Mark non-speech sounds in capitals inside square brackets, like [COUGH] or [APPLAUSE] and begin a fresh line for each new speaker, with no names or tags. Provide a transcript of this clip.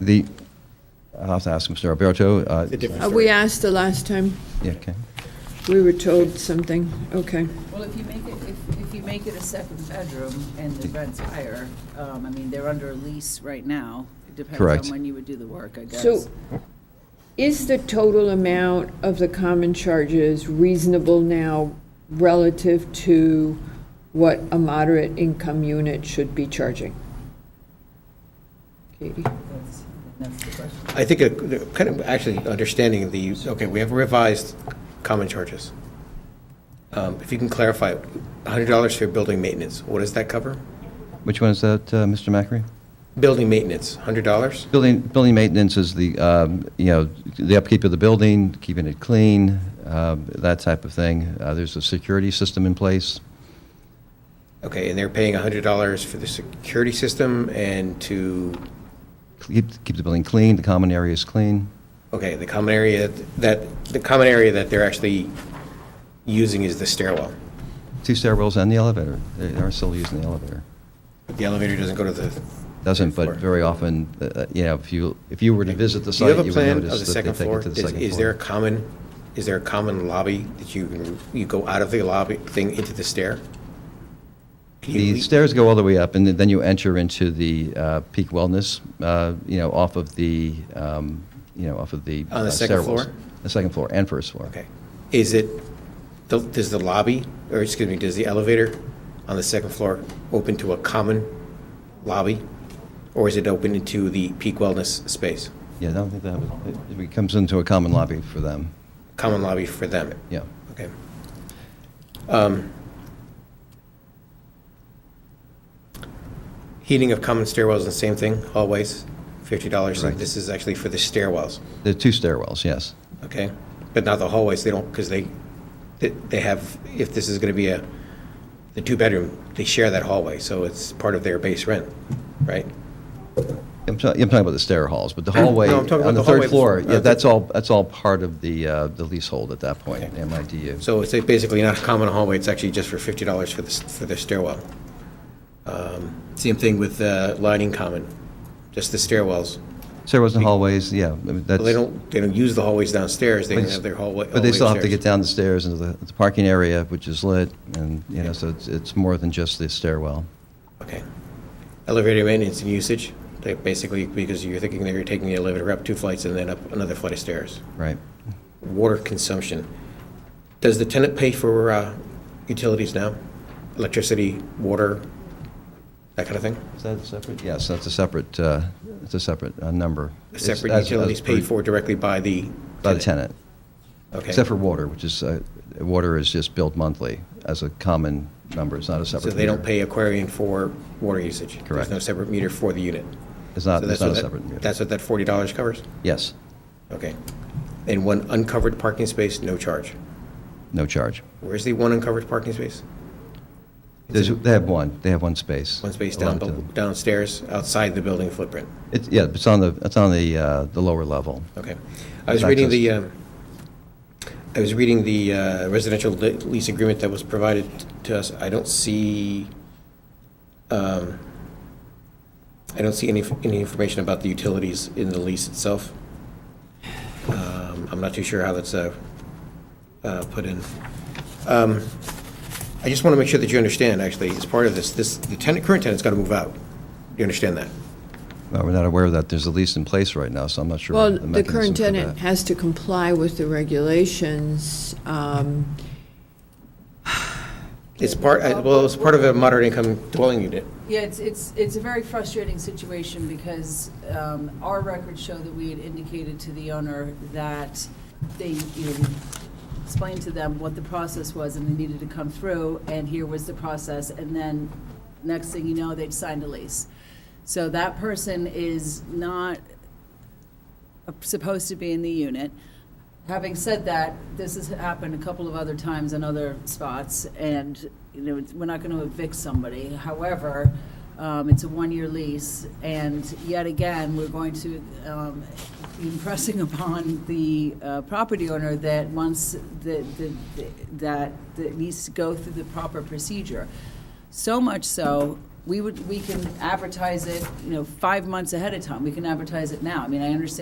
The, I'll have to ask Mr. Alberto. uh,
It's a different
Uh,
story.
We asked the last time,
Yeah, okay.
we were told something, okay.
Well, if you make it, if, if you make it a second bedroom and the rent's higher, um, I mean, they're under a lease right now. It
Correct.
Depends on when you would do the work, I guess.
So is the total amount of the common charges reasonable now relative to what a moderate income unit should be charging? Katie?
That's- That's the question.
I think, a- the- kind of actually understanding the, okay, we have revised common charges. Um, If you can clarify, $100 for building maintenance, what does that cover?
Which one is that, uh, Mr. Macri?
Building maintenance, $100?
Building, building maintenance is the, um, you know, the upkeep of the building, keeping it clean, um, that type of thing. Uh, There's a security system in place.
Okay, and they're paying $100 for the security system and to,
Keep keep the building clean, the common areas clean.
okay, the common area that, the common area that they're actually using is the stairwell.
Two stairwells and the elevator. They are still using the elevator.
The elevator doesn't go to the.
Doesn't, but
third floor.
very often, uh, you know, if you, if you were to visit the
Do
site,
you
you would
have
notice
a plan of the
that they
second
take it
floor?
to the
Is-
second
Is there a
floor.
common, is there a common lobby that you, can- you go out of the lobby thing into the stair? Can you
The
le-
stairs go all the way up, and then you enter into the uh, Peak Wellness, uh, you know, off of the, um, you know, off of the.
On the
uh,
second
stairwells.
floor?
The second floor and first floor.
Okay. Is it, the- does the lobby, or excuse me, does the elevator on the second floor open to a common lobby? Or is it open into the peak wellness space?
Yeah, I don't think that would, it- it comes into a common lobby for them,
Common lobby for them?
yeah.
Okay. Um, Heating of common stairwells, the same thing, hallways, $50.
Correct.
And This is actually for the stairwells,
There are two stairwells, yes.
okay? But not the hallways, they don't, because they, they- they have, if this is going to be a, the two-bedroom, they share that hallway, so it's part of their base rent, right?
I'm ta- I'm talking about the stair halls, but the hallway,
No, I'm talking about
on the
the
third
hallway.
floor, yeah,
Uh,
that's all, that's all part of the uh, the leasehold at that point, the MIDU.
So it's basically not a common hallway, it's actually just for $50 for the, s- for the stairwell. Um, Same thing with uh, lining common, just the stairwells.
Stairwells and hallways, yeah, I mean, that's.
Well, they don't, they don't use the hallways downstairs, they
But
can
it's-
have their hallway.
But they
hallway
still have to
upstairs.
get down the stairs into the the parking area, which is lit, and, you know, so it's, it's more than just the stairwell.
Okay. Elevator maintenance and usage, they basically, because you're thinking that you're taking the elevator up two flights and then up another flight of stairs.
Right.
Water consumption. Does the tenant pay for uh, utilities now? Electricity, water, that kind of thing?
Is that separate? Yes, that's a separate, uh, it's a separate uh, number. It's
Separate
as- as
utilities
per-
paid for directly by the
By the tenant,
Okay.
except for water, which is, uh, water is just billed monthly as a common number, it's not a separate
So
meter.
they don't pay Aquarian for water usage?
Correct.
There's no separate meter for the unit?
It's not,
So
it's
that's
not
what
a
that-
separate meter.
That's what that $40 covers?
Yes,
Okay. And one uncovered parking space, no charge.
no charge.
Where's the one uncovered parking space?
There's- They have one, they have one space.
One space down,
allowed to them.
downstairs, outside the building footprint.
It's, yeah, it's on the, it's on the, uh, the lower level.
Okay. I was
Not
reading
just-
the, um, I was reading the uh, residential le- lease agreement that was provided to us. I don't see, um, I don't see any, any information about the utilities in the lease itself. Um, I'm not too sure how that's uh, uh, put in. Um, I just want to make sure that you understand, actually, as part of this, this, the tenant, current tenant's got to move out. You understand that?
Uh, We're not aware of that. There's a lease in place right now, so I'm not sure.
Well,
the
the
mechanism
current
for
tenant
that.
has to comply with the regulations. um,
It's part, I- well, it's part of a moderate income dwelling unit.
Yeah, it's, it's, it's a very frustrating situation because um, our records show that we had indicated to the owner that they, you know, explained to them what the process was and they needed to come through, and here was the process, and then next thing you know, they'd signed a lease. So that person is not uh, supposed to be in the unit. Having said that, this has happened a couple of other times in other spots, and, you know, it's- we're not going to evict somebody. However, um, it's a one-year lease, and yet again, we're going to um, be impressing [LAUGHS] upon the uh, property owner that once the, the- the- that, that needs to go through the proper procedure. So much so we would, we can advertise it, you know, five months ahead of time. We can advertise it now. I mean, I understand